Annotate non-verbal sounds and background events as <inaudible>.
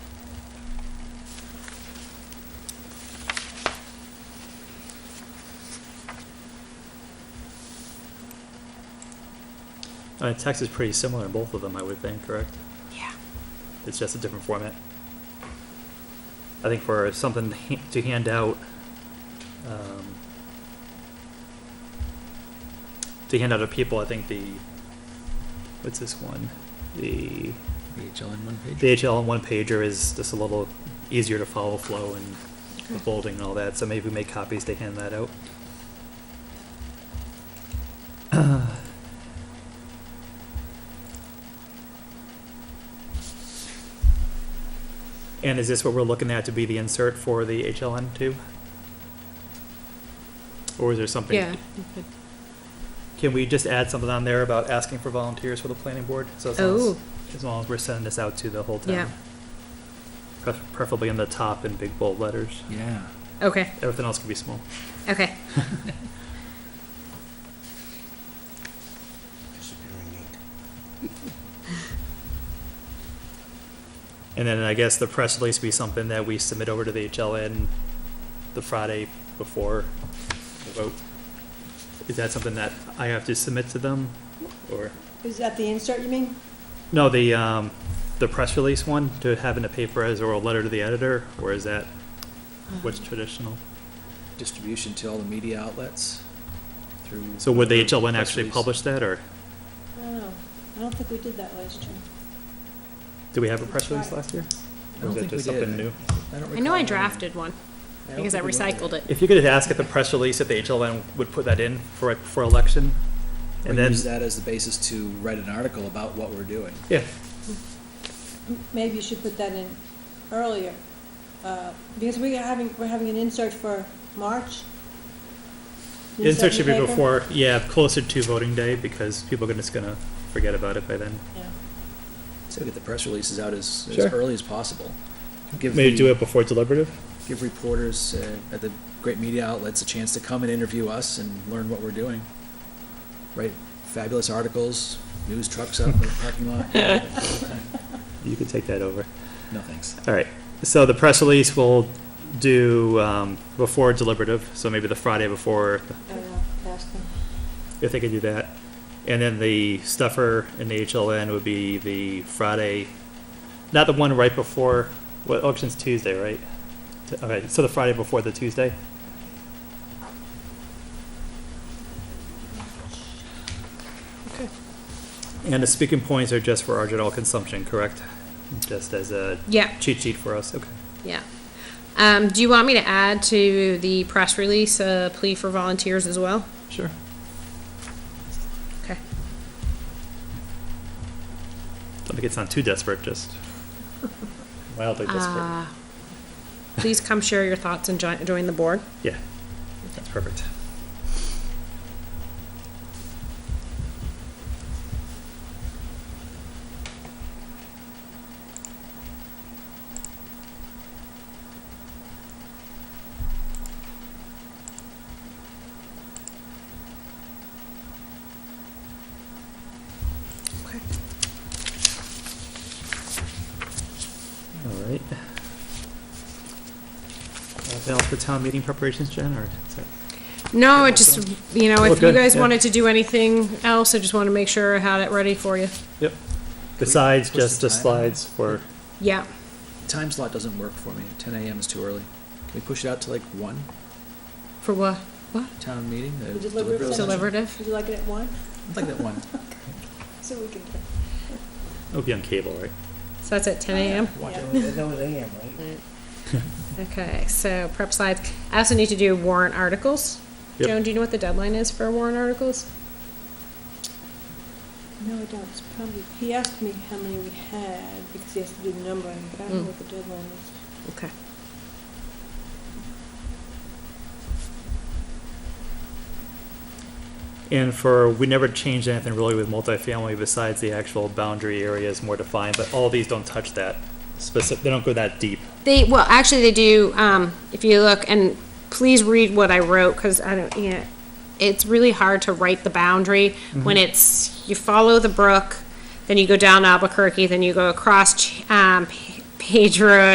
I mean, text is pretty similar in both of them, I would think, correct? Yeah. It's just a different format. I think for something to ha- to hand out, um, to hand out to people, I think the, what's this one? The VHL in one page? the HL and one pager is just a little easier to follow flow and the Okay. folding and all that, so maybe we make copies to hand that out. <clears throat> And is this what we're looking at to be the insert for the HLN too? Or is there something? Yeah. you could- Can we just add something on there about asking for volunteers for the planning board? So as long as- Oh, as long as we're sending this out to the whole town. Yeah. Pref- Preferably in the top in big bold letters. Yeah. okay, Everything else can be small. okay. Disappearing ink. And then I guess the press release be something that we submit over to the HLN the Friday before the vote. Is that something that I have to submit to them or? Is that the insert you mean? No, the, um, the press release one to have in a paper as or a letter to the editor, or is that what's Uh, traditional? Distribution to all the media outlets through. So would the HLN press actually release. publish that or I don't know. I don't think we did that last year. did we have a press release last year? I Or don't was that think we just did. something new? don't I know recall I having- drafted one don't because I think we went recycled there. it. If you could ask at the press release if the HLN would put that in for, for election, Or and then, use that as the basis to write an article about what we're doing. yeah, M- Maybe you should put that in earlier, uh, because we are having, we're having an insert for March. An insert should in be the paper? before, yeah, closer to voting day, because people are just gonna forget about it by then. Yeah. So get the press releases out as, as Sure. early as possible. Give Maybe the- do it before deliberative? Give reporters uh, at the great media outlets a chance to come and interview us and learn what we're doing. Write fabulous articles, news trucks out in the parking <laughs> lot. You could take that over. No, thanks. All right, so the press release will do, um, before deliberative, so maybe the Friday before, I don't know, ask them. if they could do that. And then the stuffer in the HLN would be the Friday, not the one right before, what, election's Tuesday, right? T- All right, so the Friday before the Tuesday? Okay. And the speaking points are just for our general consumption, correct? Just as a Yeah, cheat sheet for us, okay. yeah. Um, do you want me to add to the press release a plea for volunteers as well? Sure. Okay. Don't think it's not too desperate, <laughs> just mildly desperate. Uh, Please come share your thoughts and join, join the board. Yeah, that's perfect. Okay. All right. Anything else for town meeting preparations, Jen, or? is that- No, it just, you know, Oh, if you good, guys yeah. wanted to do anything else, I just wanted to make sure I had it ready for you. Yep. Besides push the just the Oh, time? slides for, Yeah. Time slot doesn't work for me. 10 a.m. is too early. Can we push it out to like 1 For what? What? town meeting? the Would you deliver it deliberative session? from- Deliberative? Would you like it at one? I'd like that <laughs> 1. So we can, it'll be on cable, right? So that's at ten AM? Watch Yeah. it. That was AM, right? Okay, so prep slides. I also need to do warrant articles. Yep. Joan, do you know what the deadline is for warrant articles? no, I don't, it's probably, he asked me how many we had, because he has to do the numbering, but I don't Mm. know what the deadline is. Okay. <laughs> And for, we never changed anything really with multifamily besides the actual boundary area is more defined, but all these don't touch that specific, they don't go that deep. They, well, actually, they do, um, if you look, and please read what I wrote, because I don't, yeah, it's really hard to write the boundary when it's, you follow the brook, then you go down Albuquerque, then you go across, Ch- um, Page Road,